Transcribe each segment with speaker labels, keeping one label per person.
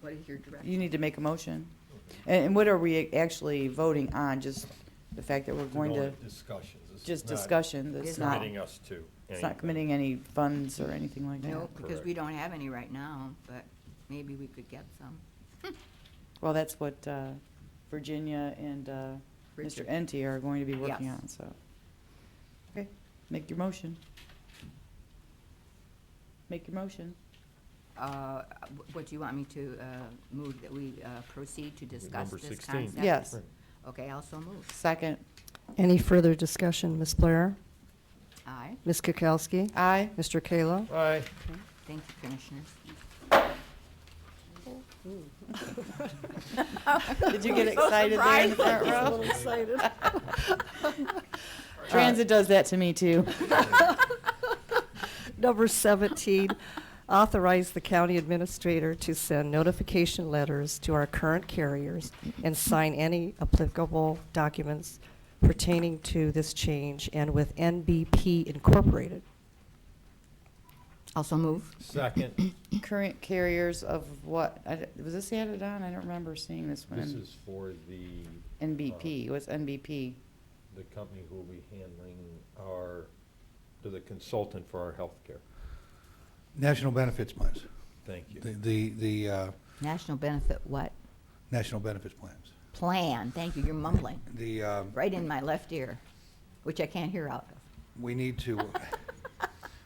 Speaker 1: What is your direction?
Speaker 2: You need to make a motion. And, and what are we actually voting on? Just the fact that we're going to,
Speaker 3: Discussions. This is
Speaker 2: just
Speaker 3: not
Speaker 2: discussion,
Speaker 1: It's
Speaker 2: that's not,
Speaker 3: Committing us to.
Speaker 2: it's not
Speaker 3: anything.
Speaker 2: committing any funds or anything like that.
Speaker 1: No, because we don't have any right now, but maybe we could get some.
Speaker 2: Well, that's what, uh, Virginia and, uh, Mr.
Speaker 1: Richard.
Speaker 2: Enti are going to be working
Speaker 1: Yes.
Speaker 2: on, so. Okay, make your motion. Make your motion.
Speaker 1: Uh, wh- What, do you want me to uh, move that we uh, proceed to discuss
Speaker 3: Number
Speaker 1: this
Speaker 3: 16.
Speaker 1: concept?
Speaker 2: Yes.
Speaker 3: Right.
Speaker 1: Okay, also move.
Speaker 2: Second.
Speaker 4: Any further discussion? Ms. Blair?
Speaker 1: Aye.
Speaker 4: Ms. Kukowski?
Speaker 2: Aye.
Speaker 4: Mr. Kayla?
Speaker 3: Aye.
Speaker 1: Thank you, Commissioners.
Speaker 2: Did you get excited there in the front row? Transit does that to me, too.
Speaker 4: Number 17, authorize the county administrator to send notification letters to our current carriers and sign any applicable documents pertaining to this change and with NBP Incorporated.
Speaker 1: Also move.
Speaker 3: Second,
Speaker 2: Current carriers of what? I d- Was this added on? I don't remember seeing this one.
Speaker 3: this is uh, for the.
Speaker 2: NBP, what's NBP?
Speaker 3: uh, The company who will be handling our, to the consultant for our healthcare.
Speaker 5: National benefits plans,
Speaker 3: Thank you.
Speaker 5: the, the, the uh,
Speaker 1: National benefit what?
Speaker 5: national benefits plans.
Speaker 1: Plan. Thank you, you're mumbling.
Speaker 5: The, uh,
Speaker 1: Right in my left ear, which I can't hear out of.
Speaker 5: we need to,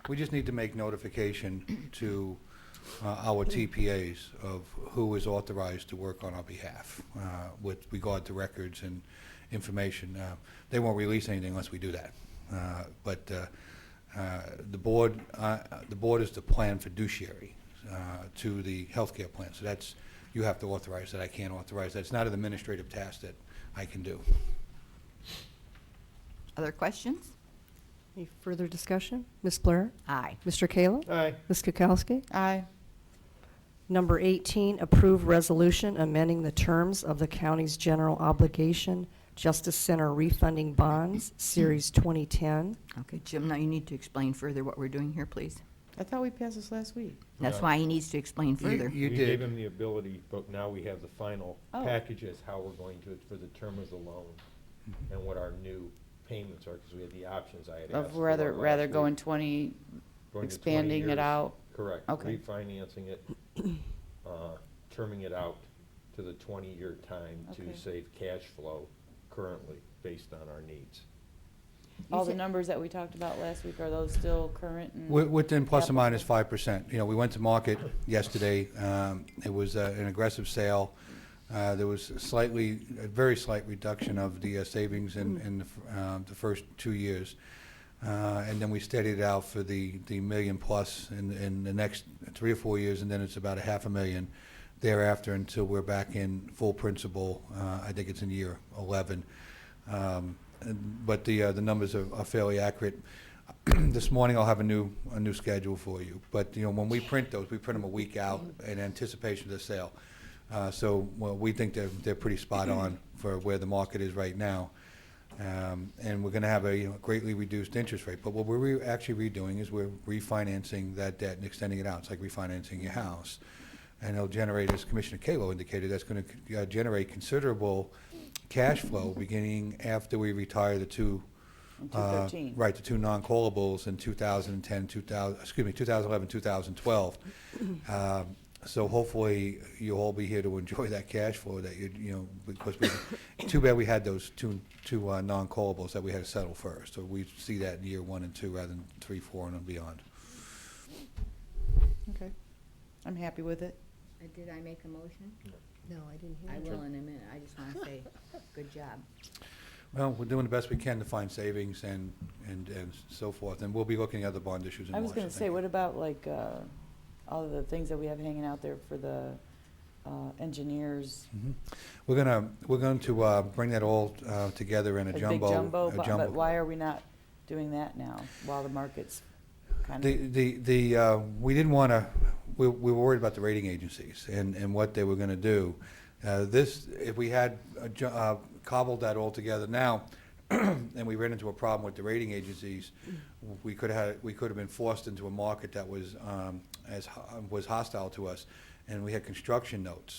Speaker 5: we just need to make notification to uh, our TPAs of who is authorized to work on our behalf uh, with regard to records and information. Uh, They won't release anything unless we do that. Uh, But uh, uh, the board, uh, the board is the plan fiduciary uh, to the healthcare plan. So that's, you have to authorize that. I can't authorize that. It's not an administrative task that I can do.
Speaker 1: Other questions?
Speaker 4: Any further discussion? Ms. Blair?
Speaker 1: Aye.
Speaker 4: Mr. Kayla?
Speaker 3: Aye.
Speaker 4: Ms. Kukowski?
Speaker 2: Aye.
Speaker 4: Number 18, approve resolution amending the terms of the county's general obligation Justice Center refunding bonds, Series 2010.
Speaker 1: Okay, Jim, now you need to explain further what we're doing here, please.
Speaker 2: I thought we passed this last week.
Speaker 1: That's
Speaker 3: Yeah.
Speaker 1: why he needs to explain
Speaker 5: You-
Speaker 1: further.
Speaker 5: You
Speaker 3: We gave
Speaker 5: did.
Speaker 3: him the ability, but now we have the final
Speaker 2: Oh.
Speaker 3: package as how we're going to, for the term of the loan and what our new payments are, because we had the options I had asked.
Speaker 2: Mm-hmm. Of
Speaker 3: for
Speaker 2: rather,
Speaker 3: last
Speaker 2: rather
Speaker 3: week.
Speaker 2: going twenty,
Speaker 3: Going to 20
Speaker 2: expanding
Speaker 3: years.
Speaker 2: it out.
Speaker 3: Correct.
Speaker 2: Okay.
Speaker 3: Refinancing it, uh, terming it out to the 20-year time
Speaker 2: Okay.
Speaker 3: to save cash flow currently based on our needs.
Speaker 2: All
Speaker 1: said-
Speaker 2: the numbers that we talked about last week, are those still current? and-
Speaker 5: Wi- Within plus or minus five percent. You know, we went to market yesterday. Um, It was uh, an aggressive sale. Uh, There was slightly, a very slight reduction of the uh, savings in, in the f- um, the first two years. Uh, And then we steadied it out for the, the million plus in, in the next three or four years, and then it's about a half a million thereafter until we're back in full principal. Uh, I think it's in year 11. Um, and- But the, uh, the numbers are are fairly accurate. This morning, I'll have a new, a new schedule for you. But, you know, when we print those, we print them a week out in anticipation of the sale. Uh, So, well, we think they're, they're pretty spot on for where the market is right now. Um, And we're going to have a you know, greatly reduced interest rate. But what we're re- actually redoing is we're refinancing that debt and extending it out. It's like refinancing your house. And it'll generate, as Commissioner Kalo indicated, that's going to generate considerable cash flow beginning after we retire the two
Speaker 2: and
Speaker 5: uh,
Speaker 2: 213.
Speaker 5: Right, the two non-callables in 2010, 2000, excuse me, 2011, 2012. Um, So hopefully, you'll all be here to enjoy that cash flow that you, you know, because we, too bad we had those two, two uh, non-callables that we had to settle first. So we see that in year one and two rather than three, four, and beyond.
Speaker 2: Okay. I'm happy with it.
Speaker 1: Did I make a motion?
Speaker 4: No, I didn't
Speaker 1: I will in a minute. I just want to say, good job.
Speaker 5: Well, we're doing the best we can to find savings and, and and so forth, and we'll be looking at other bond issues in
Speaker 2: I
Speaker 5: March.
Speaker 2: was gonna say,
Speaker 5: think.
Speaker 2: what about like, uh, all of the things that we have hanging out there for the, uh, engineers?
Speaker 5: Mhm. We're gonna, we're going to uh, bring that all uh, together in a
Speaker 2: A big
Speaker 5: jumbo.
Speaker 2: jumbo,
Speaker 5: a
Speaker 2: bu-
Speaker 5: jumbo-
Speaker 2: but why are we not doing that now, while the market's kind
Speaker 5: The,
Speaker 2: of?
Speaker 5: the, the, uh, we didn't want to, we, we were worried about the rating agencies and, and what they were going to do. Uh, this, if we had uh, ju- uh, cobbled that all together now, and we ran into a problem with the rating agencies, we could have, we could have been forced into a market that was, um, as, ho- was hostile to us. and we had construction notes.